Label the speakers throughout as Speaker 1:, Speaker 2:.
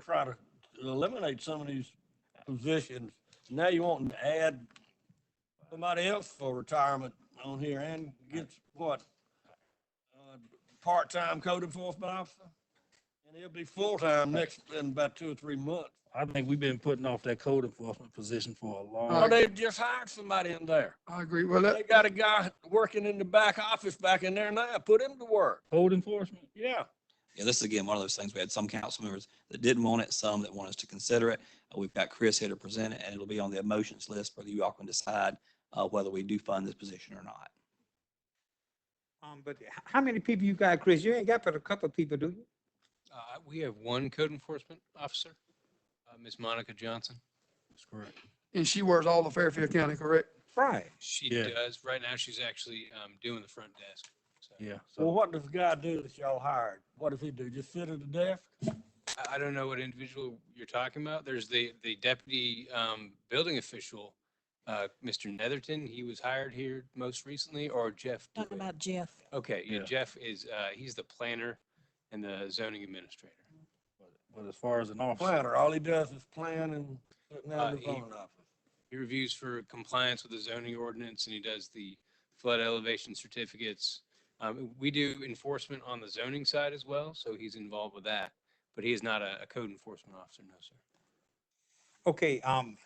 Speaker 1: try to eliminate some of these positions. Now you want to add somebody else for retirement on here and gets what? uh, Part-time code enforcement officer? And he'll be full-time next, in about two or three months.
Speaker 2: I think we've been putting off that code enforcement position for a
Speaker 1: Oh,
Speaker 2: long.
Speaker 1: they just hired somebody in there.
Speaker 3: I agree. Well,
Speaker 1: They
Speaker 3: that,
Speaker 1: got a guy working in the back office back in there now. Put him to work.
Speaker 2: Code enforcement?
Speaker 1: Yeah.
Speaker 4: Yeah, this is again, one of those things, we had some council members that didn't want it, some that want us to consider it. Uh, We've got Chris here to present it, and it'll be on the emotions list whether you all can decide uh, whether we do fund this position or not.
Speaker 5: Um, but h- how many people you got, Chris? You ain't got but a couple of people, do you?
Speaker 6: Uh, we have one code enforcement officer, uh, Ms. Monica Johnson.
Speaker 2: That's correct.
Speaker 3: and she works all of Fairfield County, correct?
Speaker 5: Right.
Speaker 6: She
Speaker 2: Yeah.
Speaker 6: does. Right now, she's actually, um, doing the front desk. So
Speaker 2: Yeah.
Speaker 1: Well,
Speaker 2: So
Speaker 1: what does the guy do that y'all hired? What does he do? Just sit at the desk?
Speaker 6: I, I don't know what individual you're talking about. There's the, the deputy, um, building official, uh, Mr. Netherton. He was hired here most recently or Jeff?
Speaker 7: Talking
Speaker 6: Dewitt?
Speaker 7: about Jeff.
Speaker 6: Okay, yeah,
Speaker 2: Yeah.
Speaker 6: Jeff is, uh, he's the planner and the zoning administrator.
Speaker 2: But as far as an officer,
Speaker 1: Planner, all he does is plan and sitting out
Speaker 6: Uh,
Speaker 1: in the
Speaker 6: he-
Speaker 1: phone office.
Speaker 6: He reviews for compliance with the zoning ordinance and he does the flood elevation certificates. Um, we do enforcement on the zoning side as well, so he's involved with that, but he is not a, a code enforcement officer, no, sir.
Speaker 5: Okay, um,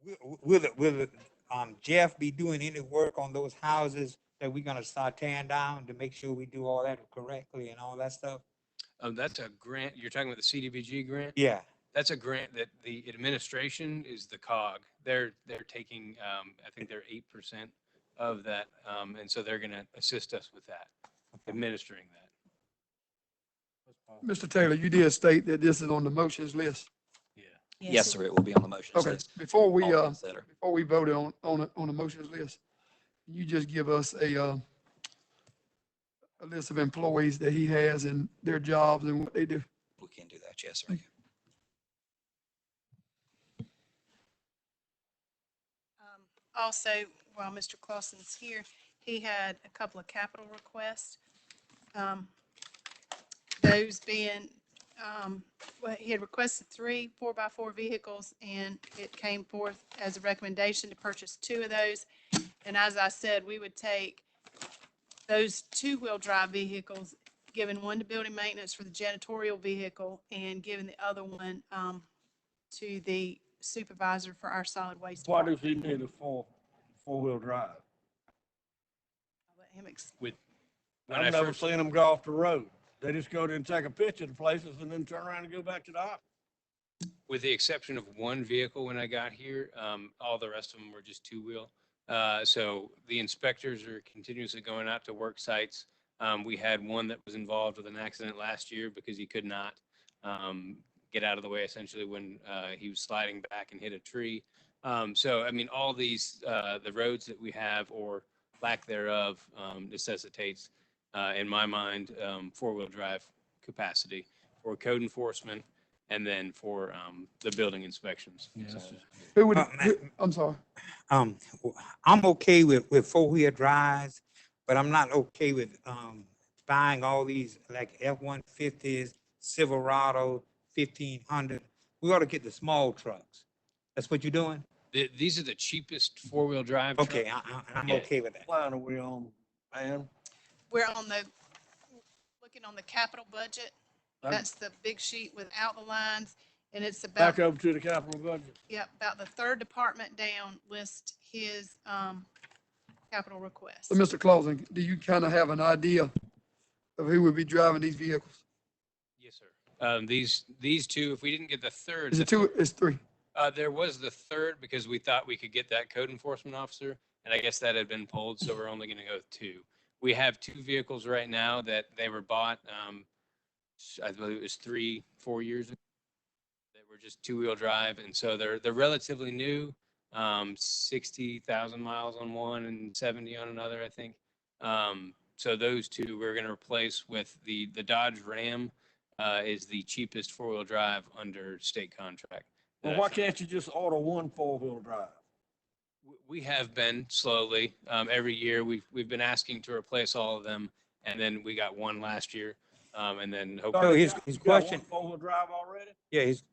Speaker 5: w- w- will, it- will, it, um, Jeff be doing any work on those houses that we're gonna start tearing down to make sure we do all that correctly and all that stuff?
Speaker 6: Um, that's a grant, you're talking about the CDBG grant?
Speaker 5: Yeah,
Speaker 6: That's a grant that the administration is the cog. They're, they're taking, um, I think they're eight percent of that, um, and so they're gonna assist us with that, administering that.
Speaker 3: Mr. Taylor, you did state that this is on the motions list.
Speaker 2: yeah.
Speaker 4: Yes, sir, it will be on the motions
Speaker 3: Okay,
Speaker 4: list.
Speaker 3: before we,
Speaker 4: all
Speaker 3: uh,
Speaker 4: consider.
Speaker 3: before we voted on, on, the- on the motions list, you just give us a, uh, a list of employees that he has and their jobs and what they do.
Speaker 4: We can do that, yes, sir.
Speaker 8: Um, Also, while Mr. Clausen's here, he had a couple of capital requests. Um, Those being, um, well, he had requested three four-by-four vehicles, and it came forth as a recommendation to purchase two of those. And as I said, we would take those two-wheel drive vehicles, giving one to building maintenance for the janitorial vehicle, and giving the other one um, to the supervisor for our solid waste.
Speaker 1: Why
Speaker 8: department.
Speaker 1: does he need a four, four-wheel drive?
Speaker 8: I'll Let him explain.
Speaker 6: When I
Speaker 1: I've never
Speaker 6: first-
Speaker 1: seen them go off the road. They just go there and take a picture of places and then turn around and go back to the office.
Speaker 6: with the exception of one vehicle when I got here, um, all the rest of them were just two-wheel. Uh, so the inspectors are continuously going out to work sites. Um, we had one that was involved with an accident last year because he could not, um, get out of the way essentially when, uh, he was sliding back and hit a tree. Um, so, I mean, all these, uh, the roads that we have or lack thereof, um, necessitates, uh, in my mind, um, four-wheel drive capacity for code enforcement and then for um, the building inspections.
Speaker 2: Yes.
Speaker 6: So-
Speaker 3: Who would,
Speaker 5: Uh, ma-
Speaker 3: who- I'm sorry.
Speaker 5: um, w- I'm okay with, with four-wheel drives, but I'm not okay with, um, buying all these like F-150s, Silverado, fifteen hundred. We ought to get the small trucks. That's what you're doing?
Speaker 6: Th- These are the cheapest four-wheel drive. truck-
Speaker 5: Okay, I, I, I'm
Speaker 6: Yeah.
Speaker 5: okay with that.
Speaker 1: Line are we on, man?
Speaker 8: We're on the, looking on the capital budget.
Speaker 1: That-
Speaker 8: That's the big sheet without the lines, and it's about,
Speaker 1: Back over to the capital budget.
Speaker 8: yeah, about the third department down list his um, capital request.
Speaker 3: So, Mr. uh, Clausen, do you kind of have an idea of who would be driving these vehicles?
Speaker 6: Yes, sir. Um, These, these two, if we didn't get the third.
Speaker 3: Is
Speaker 6: the
Speaker 3: it two, it's three?
Speaker 6: Uh, there was the third because we thought we could get that code enforcement officer, and I guess that had been pulled, so we're only gonna go with two. We have two vehicles right now that they were bought, um, s- I believe it was three, four years ago. That were just two-wheel drive, and so they're, they're relatively new, um, sixty thousand miles on one and seventy on another, I think. Um, so those two we're gonna replace with the, the Dodge Ram, uh, is the cheapest four-wheel drive under state contract.
Speaker 1: Well,
Speaker 6: that I
Speaker 1: why
Speaker 6: found.
Speaker 1: can't you just order one four-wheel drive?
Speaker 6: W- We have been slowly, um, every year, we've, we've been asking to replace all of them, and then we got one last year. Um, and then hopefully.
Speaker 5: So his, his
Speaker 1: You got one
Speaker 5: question,
Speaker 1: Oh, Four-wheel drive already?
Speaker 5: yeah, his